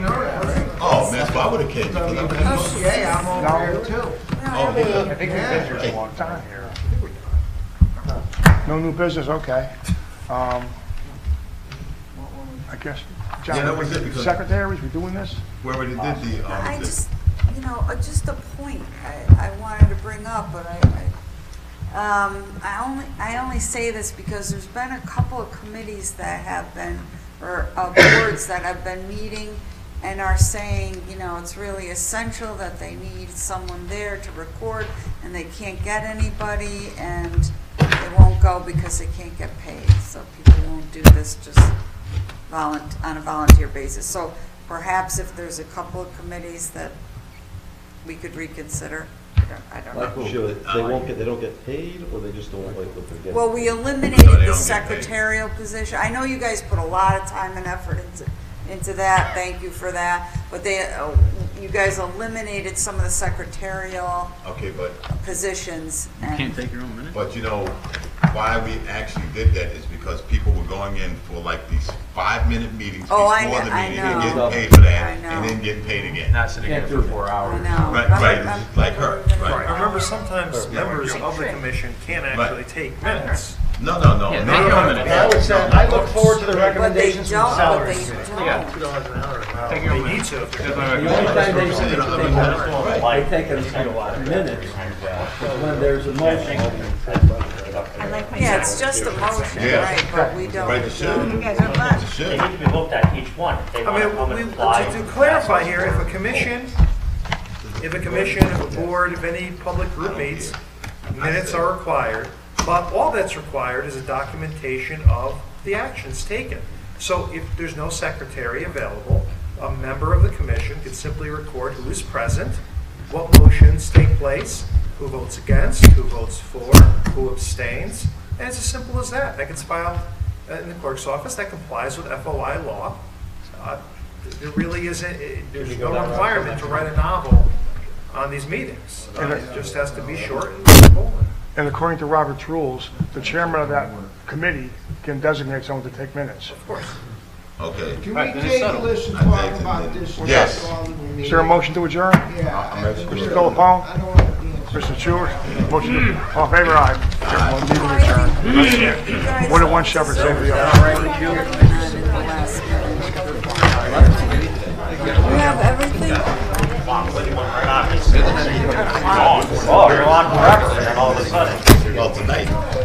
Oh, That's why I would have came, because I'm kind of, Yeah, I'm over there too. oh, yeah. I think we've been here a long time here. No new business, okay. Um, I guess, Yeah, that John, was it, because- secretaries, we doing this? We already did the, I um, the- just, you know, uh, just a point I, I wanted to bring up, but I, I, um, I only, I only say this because there's been a couple of committees that have been, or, uh, boards that have been meeting and are saying, you know, it's really essential that they need someone there to record, and they can't get anybody, and they won't go because they can't get paid, so people won't do this just volun, on a volunteer basis. So perhaps if there's a couple of committees that we could reconsider, I don't- I don't know. Like, sure, they won't get, they don't get paid, or they just don't like what they're getting? Well, we eliminated they the don't get paid. secretarial position. I know you guys put a lot of time and effort into, into that, thank you for that. But they, uh, you guys eliminated some of the secretarial okay, but, positions. and- Can't take your own minute? but you know, why we actually did that is because people were going in for like these five-minute meetings Oh, before I the know- I meeting and getting know. paid for I that, know. and then getting paid again. Not sitting here for four I hours. know. Right, right, it's like her, right. I remember sometimes Yeah. members of the commission can't actually Right. take minutes. No, no, no. Yeah, no, they no, come no, in. no, I would say, no, no. I look forward to the But they recommendations from don't, but salaries. they Yeah. don't. Take your They own need minute. That's my to if they're gonna- The only time they recommendation. say that they Right. have, they take a minute, is when there's a motion. I like my. Yeah, it's just a motion, Yeah. right, but we don't. Right, it should. You guys are fun. It They should. need to be looked at each one if they I want to mean, come we, and to apply. to clarify here, if a commission, if a commission, if a board, if any public group meets, minutes are required, but all that's required is a documentation of the actions taken. So if there's no secretary available, a member of the commission could simply record who is present, what motions take place, who votes against, who votes for, who abstains, and it's as simple as that. That gets filed uh, in the clerk's office, that complies with FOI law. Uh, There really isn't, it- there's no requirement to write a novel on these meetings. Uh, It just has to be short and simple. And according to Robert's rules, the chairman of that committee can designate someone to take minutes. Okay. Do we Right, then it's take settled. listen I talk think about that- this? Yes. Is there a motion to adjourn? Mr. Philippone? I don't want to be. Mr. Stewart? Motion, to- all in favor, aye. Meeting adjourned. What did one shepherd say to the other? We have everything. Oh, you're on forever, and then all of a sudden. Well, tonight.